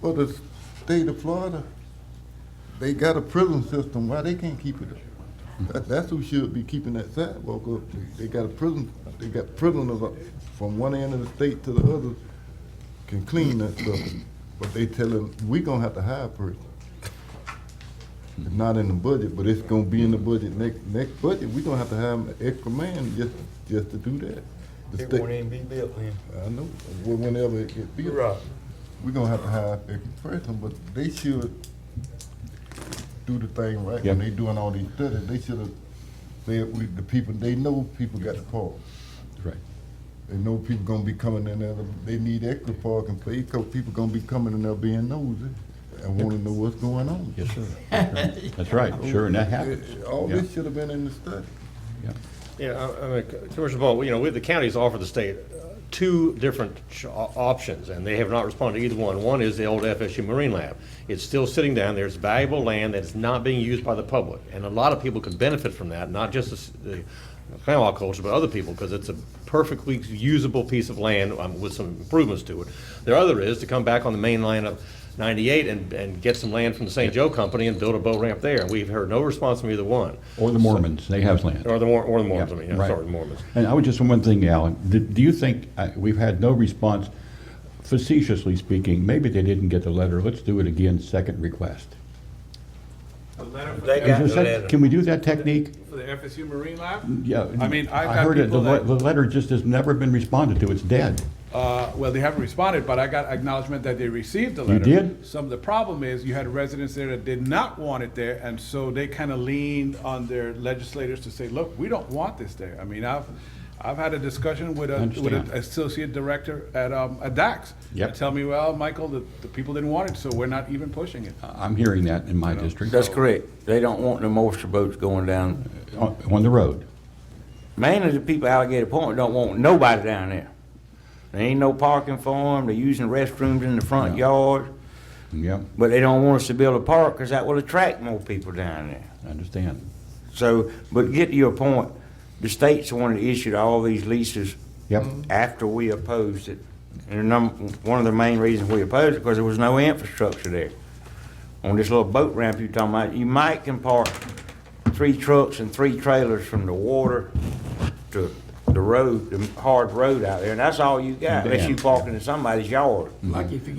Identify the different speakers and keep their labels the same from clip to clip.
Speaker 1: for the state of Florida, they got a prison system, why they can't keep it up? That, that's who should be keeping that sidewalk up. They got a prison, they got prisoners up from one end of the state to the other can clean that stuff. But they tell them, we gonna have to hire a person. It's not in the budget, but it's gonna be in the budget next, next budget, we gonna have to have an extra man just, just to do that. The
Speaker 2: It
Speaker 1: state-
Speaker 2: won't even be built then.
Speaker 1: I know, wh- whenever it gets built. We're gonna have to hire a person, but they should do the thing right. When
Speaker 3: Yeah.
Speaker 1: they doing all these studies, they should have, they, we, the people, they know people got the park.
Speaker 3: Right.
Speaker 1: They know people gonna be coming in there, they need extra parking space, cause people gonna be coming in there being nosy. and wanna know what's going on.
Speaker 3: Yes, sir. That's right, sure, and that happens.
Speaker 1: All
Speaker 3: Yeah.
Speaker 1: this should have been in the study.
Speaker 3: Yeah.
Speaker 4: Yeah, I- I mean, Commissioner Ball, you know, we- the counties offer the state uh, two different ch- o- options, and they have not responded to either one. One is the old FSU Marine Lab. It's still sitting down there, it's valuable land that is not being used by the public, and a lot of people could benefit from that, not just the s- the Clamaw culture, but other people, because it's a perfectly usable piece of land um, with some improvements to it. The other is to come back on the main line of 98 and, and get some land from the St. Joe Company and build a boat ramp there, and we've heard no response from either one.
Speaker 3: Or the Mormons, they have land.
Speaker 4: Or the Mor- or the Oh, Mormons, I
Speaker 3: Yeah,
Speaker 4: mean, yeah,
Speaker 3: right.
Speaker 4: sorry, the Mormons.
Speaker 3: And I was just one thing, Alan, do, do you think, I- we've had no response, facetiously speaking, maybe they didn't get the letter, let's do it again, second request.
Speaker 2: They got
Speaker 3: Is
Speaker 2: the
Speaker 3: that-
Speaker 2: letter.
Speaker 3: Can we do that technique?
Speaker 5: For the FSU Marine Lab?
Speaker 3: Yeah.
Speaker 5: I mean, I've got
Speaker 3: heard it.
Speaker 5: people
Speaker 3: the le-
Speaker 5: that-
Speaker 3: The letter just has never been responded to, it's dead.
Speaker 5: Uh, well, they haven't responded, but I got acknowledgement that they received the letter.
Speaker 3: did?
Speaker 5: Some of the problem is you had residents there that did not want it there, and so they kind of leaned on their legislators to say, look, we don't want this there. I mean, I've, I've had a discussion with a, with an
Speaker 3: Understand.
Speaker 5: associate director at, um, at DAX.
Speaker 3: Yep.
Speaker 5: They Tell me, well, Michael, the, the people didn't want it, so we're not even pushing it.
Speaker 3: I- I'm hearing that in my district,
Speaker 6: That's correct. They don't want no moisture boats going down.
Speaker 3: on on the road.
Speaker 6: Mainly the people at Alligator Point don't want nobody down there. There ain't no parking for them. They're using restrooms in the front yard,
Speaker 3: Yeah,
Speaker 6: but they don't want us to build a park because that will attract more people down there.
Speaker 3: I understand.
Speaker 6: So, but get to your point, the state's the one that issued all these leases
Speaker 3: Yep.
Speaker 6: after we opposed it. And the number, one of the main reasons we opposed it, because there was no infrastructure there. On this little boat ramp you talking about, you might can park three trucks and three trailers from the water to the road, the hard road out there, and that's all you got, unless you park into somebody's yard.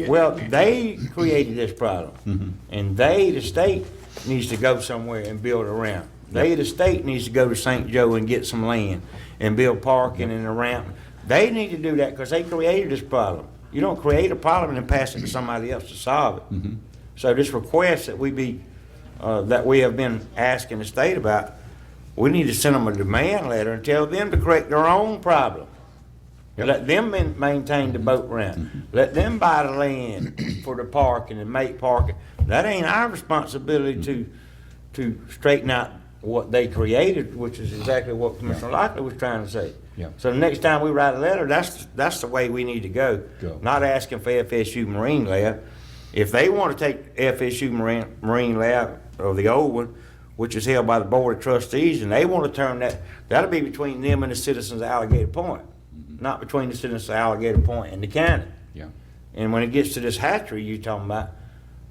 Speaker 6: Well, they created this problem, and they, the state, needs to go somewhere and build a ramp. They, the state, needs to go to St. Joe and get some land and build parking and a ramp. They need to do that because they created this problem. You don't create a problem and pass it to somebody else to solve it. So this request that we be, uh, that we have been asking the state about, we need to send them a demand letter and tell them to correct their own problem. Let them main- maintain the boat ramp. Let them buy the land for the parking and make parking. That ain't our responsibility to, to straighten out what they created, which is exactly what Commissioner Lockley was trying to say.
Speaker 3: Yeah.
Speaker 6: So the next time we write a letter, that's, that's the way we need to go.
Speaker 3: Go.
Speaker 6: Not asking for FSU Marine Lab. If they want to take FSU Marine, Marine Lab, or the old one, which is held by the Board of Trustees, and they want to turn that, that'll be between them and the citizens of Alligator Point,
Speaker 3: Mm-hmm.
Speaker 6: not between the citizens of Alligator Point and the county.
Speaker 3: Yeah.
Speaker 6: And when it gets to this hatchery you talking about,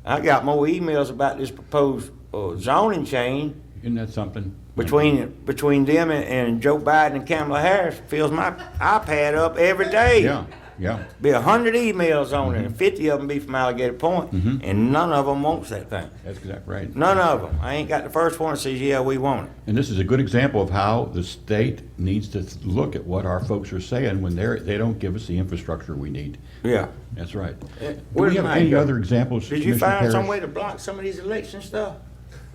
Speaker 6: I got more emails about this proposed uh, zoning change
Speaker 3: Isn't that something?
Speaker 6: between,
Speaker 3: Mm-hmm.
Speaker 6: between them and- and Joe Biden and Kamala Harris fills my iPad up every day.
Speaker 3: Yeah, yeah.
Speaker 6: Be a hundred emails on it, and fifty of them be from Alligator Point, and none of them wants that thing.
Speaker 3: That's exactly right.
Speaker 6: None of them. I ain't got the first one that says, "Yeah, we want it."
Speaker 3: And this is a good example of how the state needs to th- look at what our folks are saying when they're, they don't give us the infrastructure we need.
Speaker 6: Yeah.
Speaker 3: That's right.
Speaker 6: Eh,
Speaker 3: Do
Speaker 6: where's
Speaker 3: we have
Speaker 6: mine,
Speaker 3: any
Speaker 6: Joe?
Speaker 3: other examples?
Speaker 6: Did you
Speaker 3: Commissioner
Speaker 6: find some
Speaker 3: Parrish?
Speaker 6: way to block some of these election stuff?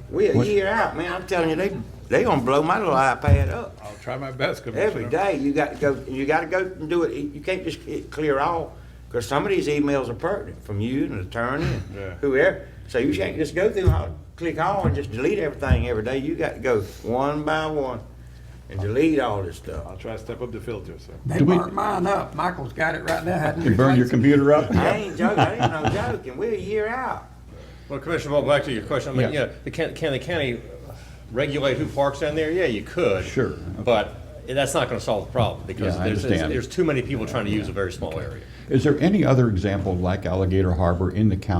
Speaker 6: We a
Speaker 3: What?
Speaker 6: year out, man. I'm telling you, they they gonna blow my little iPad up
Speaker 5: I'll try my best, Commissioner.
Speaker 6: every day. You got to go. You got to go and do it. You can't just get clear all because some of these emails are pertinent from you and the attorney and
Speaker 5: Yeah.
Speaker 6: whoever. So you can't just go through all, click all and just delete everything every day. You got to go one by one and delete all this stuff.
Speaker 5: I'll try to step up the filter, sir.
Speaker 7: They
Speaker 3: Do we-
Speaker 7: marked mine up. Michael's got it right now.
Speaker 3: You burn your computer up?
Speaker 6: I ain't joking. I ain't no joking. We're a year out.
Speaker 4: Well, Commissioner Ball, back to your question, I mean,
Speaker 3: Yeah.
Speaker 4: yeah, the can, can the county regulate who parks down there? Yeah, you could.
Speaker 3: Sure.
Speaker 4: But that's not gonna solve the problem, because
Speaker 3: Yeah, I
Speaker 4: there's, there's
Speaker 3: understand.
Speaker 4: there's too many people trying to use a very small area.
Speaker 3: Is there any other example like Alligator Harbor in the county